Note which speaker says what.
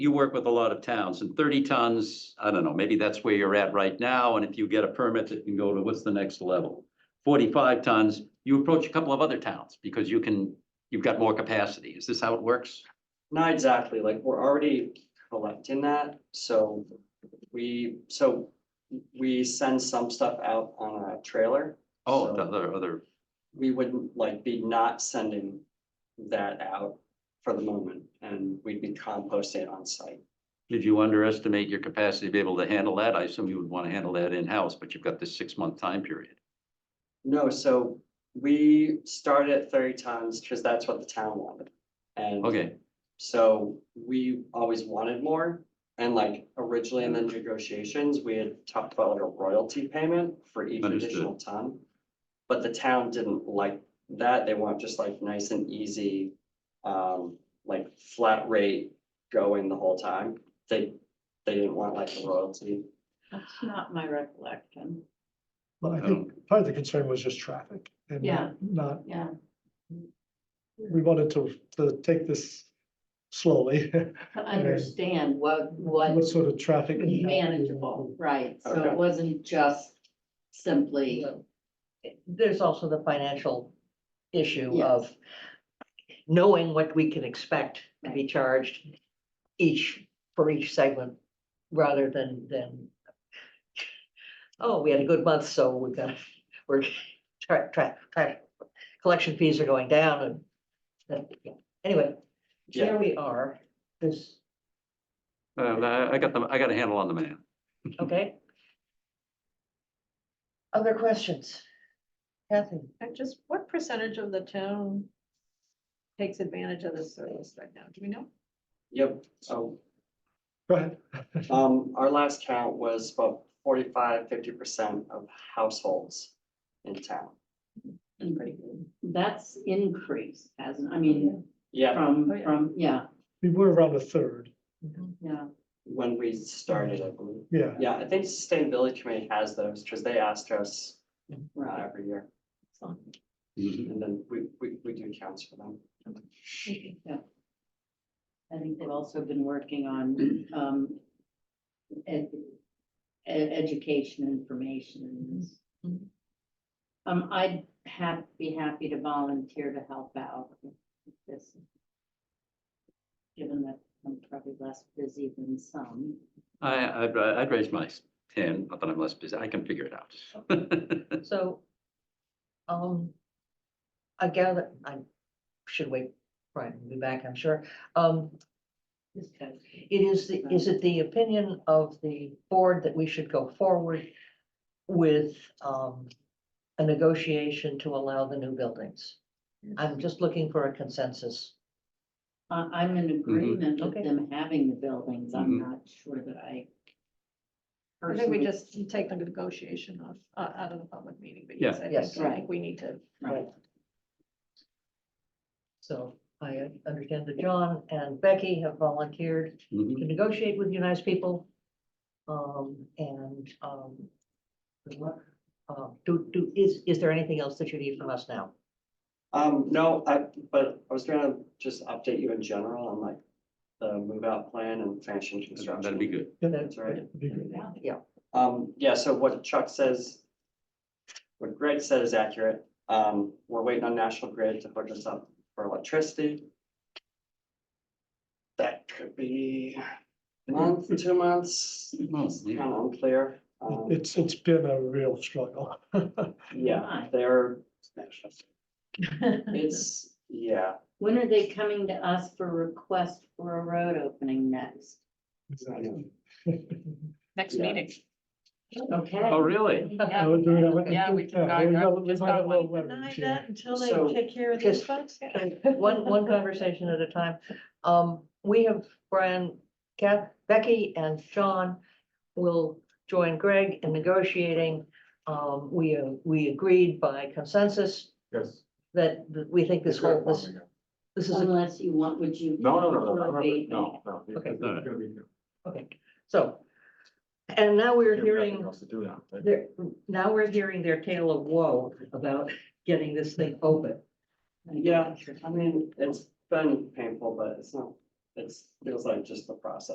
Speaker 1: you work with a lot of towns and thirty tons, I don't know, maybe that's where you're at right now. And if you get a permit, it can go to what's the next level? Forty-five tons, you approach a couple of other towns because you can, you've got more capacity. Is this how it works?
Speaker 2: Not exactly, like, we're already collecting that, so we, so we send some stuff out on a trailer.
Speaker 1: Oh, the
Speaker 2: So
Speaker 1: other, other,
Speaker 2: We wouldn't like be not sending that out for the moment, and we'd be composting it on site.
Speaker 1: did you underestimate your capacity to be able to handle that? I assume you would want to handle that in-house, but you've got this six-month time period.
Speaker 2: No, so we started at thirty tons, because that's what the town wanted. And
Speaker 1: Okay,
Speaker 2: So we always wanted more and like originally in the negotiations, we had talked about like a royalty payment for each
Speaker 1: Understood.
Speaker 2: additional ton. But the town didn't like that. They want just like nice and easy, um, like flat rate going the whole time. They, they didn't want like a royalty.
Speaker 3: That's not my recollection.
Speaker 4: But I
Speaker 1: I
Speaker 4: think part of the concern was just traffic and
Speaker 3: Yeah.
Speaker 4: not,
Speaker 3: Yeah,
Speaker 4: we wanted to, to take this slowly.
Speaker 3: to understand what,
Speaker 4: What
Speaker 3: what
Speaker 4: sort of traffic? impact we
Speaker 3: manageable,
Speaker 4: want.
Speaker 3: right? So
Speaker 2: Okay.
Speaker 3: it wasn't just simply,
Speaker 5: There's also the financial issue
Speaker 3: Yes.
Speaker 5: of knowing what we can expect to be charged each, for each segment, rather than, than, oh, we had a good month, so we're gonna, we're, tra- tra- tra- collection fees are going down and, then, yeah. anyway,
Speaker 2: Yeah.
Speaker 5: there we are, this,
Speaker 1: Um, I I got the, I got a handle on the man.
Speaker 5: okay? Other questions? Kathy?
Speaker 6: And just what percentage of the town takes advantage of this service right now? Do we know?
Speaker 2: Yep. So,
Speaker 4: Go ahead.
Speaker 2: um, our last count was about 45, 50 percent of households in town.
Speaker 3: that's increase, hasn't, I mean,
Speaker 2: Yeah.
Speaker 3: from,
Speaker 6: Oh, yeah.
Speaker 3: from, yeah,
Speaker 4: We were around a third,
Speaker 3: yeah.
Speaker 2: when we started, I believe.
Speaker 4: yeah.
Speaker 2: Yeah, I think Sustainability Committee has those because they asked us uh,
Speaker 3: Right.
Speaker 2: every year. And then we, we, we do counts for them.
Speaker 3: Yeah. I think they've also been working on, um, ed- ed- education information.
Speaker 6: Mhm.
Speaker 3: Um, I'd have, be happy to volunteer to help out with this. Given that I'm probably less busy than some.
Speaker 1: I, I'd, I'd raise my hand, not that I'm less busy, I can figure it out.
Speaker 5: So, um, I gather, I should wait, Brian will be back, I'm sure. Um,
Speaker 3: This guy's-
Speaker 5: it is, the is it the opinion of the board that we should go forward with, um, a negotiation to allow the new buildings? I'm just looking for a consensus.
Speaker 3: I, I'm in agreement with
Speaker 5: Okay.
Speaker 3: them having the buildings.
Speaker 1: Mhm.
Speaker 3: I'm not sure that I.
Speaker 6: I think we
Speaker 3: personally-
Speaker 6: just take the negotiation off, uh, out of the public meeting, but
Speaker 1: Yeah.
Speaker 6: yes, I
Speaker 5: Yes.
Speaker 6: think, I think we need to.
Speaker 3: Right.
Speaker 5: So I understand that John and Becky have volunteered
Speaker 1: Mhm.
Speaker 5: to negotiate with United people. Um, and, um, what, uh, do, do, is, is there anything else that you need from us now?
Speaker 2: Um, no, I, but I was gonna just update you in general on like the move out plan and finishing construction.
Speaker 1: That'd be good.
Speaker 2: That's all right.
Speaker 4: That'd be good.
Speaker 2: Um, yeah, so what Chuck says, what Greg said is accurate. Um, we're waiting on National Grid to hook us up for electricity. That could be a month, two months, it's kind of unclear. Um,
Speaker 4: It's, it's been a real struggle.
Speaker 2: yeah,
Speaker 3: Why?
Speaker 2: they're, it's, yeah,
Speaker 3: When are they coming to us for request for a road opening next?
Speaker 6: Next
Speaker 2: Yeah.
Speaker 6: meeting.
Speaker 1: Oh,
Speaker 3: Okay.
Speaker 1: really?
Speaker 4: I would do that.
Speaker 6: Yeah, we
Speaker 4: Yeah,
Speaker 6: can. I- I
Speaker 4: we got- we
Speaker 6: just
Speaker 4: might have
Speaker 6: don't
Speaker 4: a
Speaker 6: wanna
Speaker 4: little leverage
Speaker 6: deny
Speaker 4: here.
Speaker 6: that Until
Speaker 2: So-
Speaker 6: they take care of
Speaker 5: Just-
Speaker 6: these folks. yeah.
Speaker 5: One, one conversation at a time. Um, we have Brian, Kath, Becky and John will join Greg in negotiating. Um, we, uh, we agreed by consensus
Speaker 7: Yes.
Speaker 5: that that we think this whole, this, this is a
Speaker 3: Unless you want, would you?
Speaker 7: No, no, no, no, no,
Speaker 3: Or they-
Speaker 7: no, no. it's-
Speaker 5: Okay.
Speaker 7: it's gonna be-
Speaker 5: Okay, so, and now we're
Speaker 7: nothing
Speaker 5: hearing,
Speaker 7: else to do now, right?
Speaker 5: there, now we're hearing their tale of woe about getting this thing open.
Speaker 2: yeah, I mean, it's been painful, but it's not, it's, feels like just the process.